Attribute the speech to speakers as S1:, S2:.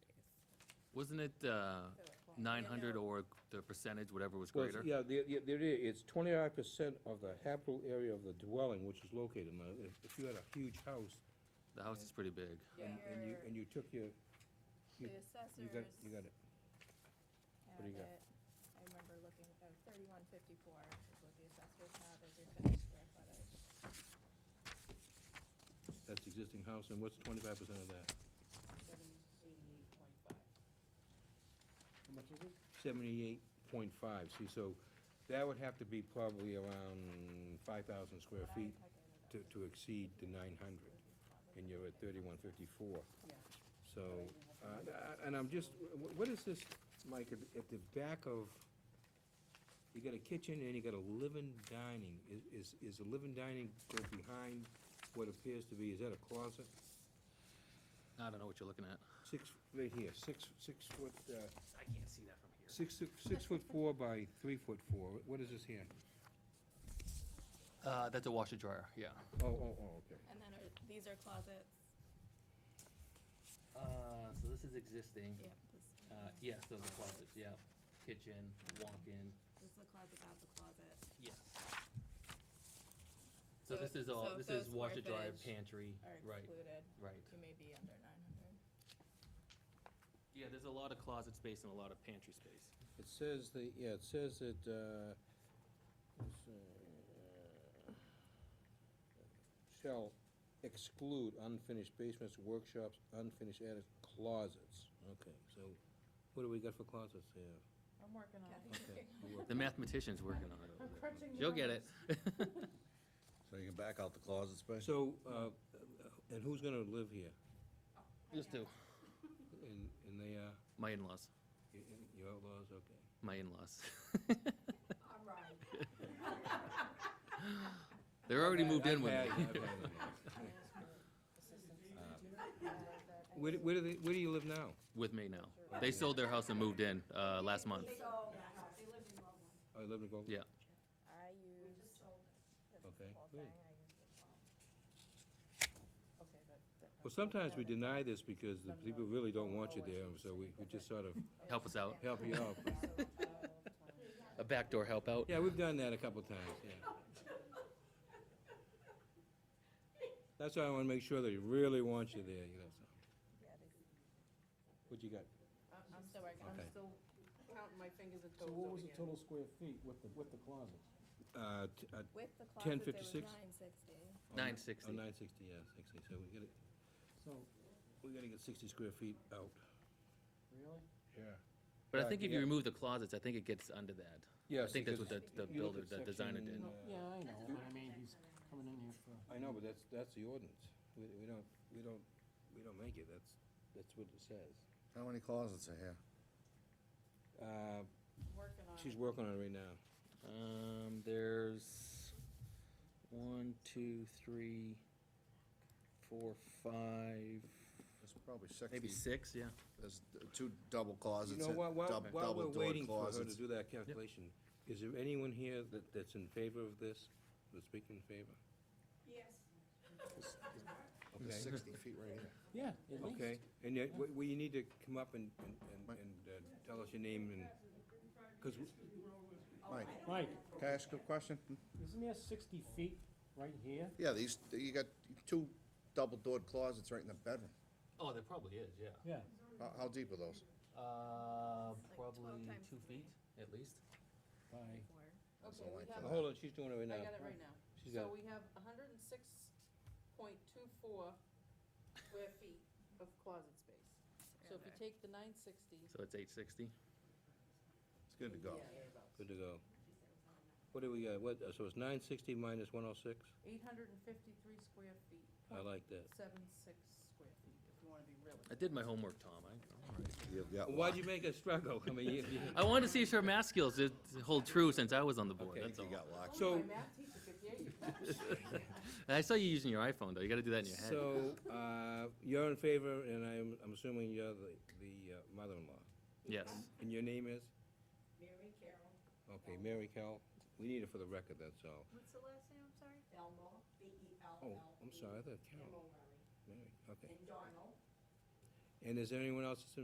S1: Wasn't it uh, 900 or the percentage, whatever was
S2: Well, it's-
S1: greater?
S2: Yeah, the, the, there it is. It's twenty-five percent of the habitable area of the dwelling, which is located. Now, if, if you had a huge house
S1: The house is pretty big.
S2: and, and you, and you took your,
S3: The
S2: you- you got,
S3: assessors
S2: you got it.
S3: have
S2: do you got?
S3: it, I remember looking, oh, thirty-one fifty-four is what the assessors have as your finished square footage.
S2: That's existing house, and what's twenty-five percent of that?
S4: How much is it?
S2: Seventy-eight point five, see, so that would have to be probably around five thousand square
S3: But I
S2: feet
S3: calculated that
S2: to,
S3: was
S2: to exceed the nine hundred, and you're at thirty-one fifty-four.
S4: Yeah.
S2: So, uh, and I'm just, wh- what is this, Mike, at- at the back of, you got a kitchen and you got a living dining. Is- Is, is the living dining go behind what appears to be, is that a closet?
S1: I don't know what you're looking at.
S2: Six, right here, six, six foot, uh,
S5: I can't see that from here.
S2: six, six foot four by three foot four. What is this here?
S1: Uh, That's a washer dryer, yeah.
S2: Oh, oh, oh, okay.
S3: And then are- these are closets.
S5: Uh, so this is existing.
S3: Yep. This
S5: Uh, yes, those are closets, yeah. Kitchen, walk-in,
S3: this is the closet, that's the closet.
S5: yes. So
S3: So-
S5: this is all,
S3: so
S5: this
S3: those
S5: is
S3: square
S5: washer dryer,
S3: footage
S5: pantry,
S3: Are
S5: right,
S3: excluded.
S5: right.
S3: You may be under nine hundred.
S5: Yeah, there's a lot of closet space and a lot of pantry space.
S2: It says the, yeah, it says that, uh, let's see, uh, shall exclude unfinished basements, workshops, unfinished attics, closets. Okay, so what do we got for closets here?
S4: I'm working on it.
S2: Okay.
S1: The mathematician's working on it.
S4: I'm crunching the
S1: You'll get it.
S6: So you can back out the closet space?
S2: So, uh, and who's gonna live here?
S1: Just do.
S2: And, and they are,
S1: My in-laws,
S2: y- y- your outlaws, okay.
S1: my in-laws.
S3: All right.
S1: They're already moved in with
S2: I've
S1: me.
S2: had- I've had them.
S4: Um,
S2: Where, do- where do they, where do you live now?
S1: With me now. They sold their house and moved in uh, last month.
S2: I Oh, live in Groveland?
S1: Yeah.
S3: I use the
S2: Okay,
S3: whole
S2: good.
S3: thing, I use the whole.
S2: Well, sometimes we deny this because the people really don't want you there, so we, we just sort of
S1: Help us out.
S2: help you out.
S1: A backdoor help out.
S2: Yeah, we've done that a couple times, yeah. That's why I wanna make sure they really want you there, you know, so.
S3: Yeah, they-
S2: What you got?
S3: I'm still working on
S2: Okay.
S3: it.
S4: still counting my fingers and
S7: So what was the total square feet with the, with the closet?
S2: Uh, t- uh,
S3: With the closets, it was
S2: 1056?
S3: nine sixty.
S1: Nine sixty.
S2: Oh, nine sixty, yeah, sixty, so we gotta,
S7: So,
S2: we gotta get sixty square feet out.
S7: really?
S2: Yeah.
S1: But I think if you
S2: Yeah.
S1: remove the closets, I think it gets under that.
S2: Yes.
S1: I think that's what
S2: because
S1: the, the
S2: you look
S1: builder, the
S2: at
S1: designer
S2: section,
S1: did.
S2: uh,
S7: Yeah, I know, but I mean, he's coming in here for.
S2: I know, but that's, that's the ordinance. We, we don't, we don't, we don't make it, that's, that's what it says.
S6: How many closets are here?
S2: Uh,
S4: Working on
S2: she's working on it right now.
S5: Um, there's one, two, three, four, five,
S6: There's probably sixty.
S5: maybe six, yeah.
S6: There's uh, two double closets.
S2: You know,
S6: uh,
S2: while, while,
S6: dub-
S2: while we're
S6: double-door
S2: waiting for her to
S6: closets.
S2: do that calculation, is there anyone here that, that's in favor of this, that's speaking in favor?
S6: Oh, There's sixty feet right here.
S7: Yeah, at least.
S2: Okay, and yet, we, we need to come up and, and, and- and uh, tell us your name and, because,
S6: Mike,
S7: Mike,
S6: can I ask you a question?
S7: isn't there sixty feet right here?
S6: Yeah, these, you got two double-doored closets right in the bedroom.
S5: Oh, there probably is, yeah.
S7: Yeah.
S6: How, how deep are those?
S5: Uh,
S3: like 12
S5: probably
S3: times
S5: two feet, at least.
S7: By,
S3: Four.
S6: That's
S4: Okay,
S6: all
S4: we
S6: I
S4: have-
S2: now,
S6: can-
S2: hold on, she's doing it right
S4: I
S2: now.
S4: got it right now.
S2: She's
S4: So
S2: got-
S4: we have hundred and six point two four square feet of closet space. So if you take the nine sixty.
S1: So it's eight sixty.
S6: It's good to go.
S2: Good to go. What do we got, what, so it's nine sixty minus one oh six?
S4: Eight hundred and fifty-three square feet,
S2: I like that.
S4: seven six square feet, if you wanna be really.
S1: I did my homework, Tom. I, all right.
S6: You've got
S2: Why'd
S6: one.
S2: you make us struggle? I mean, you- you-
S1: I wanted to see if her math skills did hold true since I was on the board,
S2: Okay.
S1: that's all.
S6: You got locked.
S2: So-
S4: Only my math teacher could hear you.
S1: And I saw you using your iPhone, though. You gotta do that in your head.
S2: So, uh, you're in favor, and I'm, I'm assuming you're the, the uh, mother-in-law.
S1: Yes.
S2: And your name is?
S8: Mary Carol
S2: Okay, Mary Cal, we need it for the record, that's all.
S8: What's the last name, I'm sorry? Belmo, B-E-L-L.
S2: Oh, I'm sorry, I thought Carol, Mary, okay.
S8: E, And Donald.
S2: And is there anyone else that's in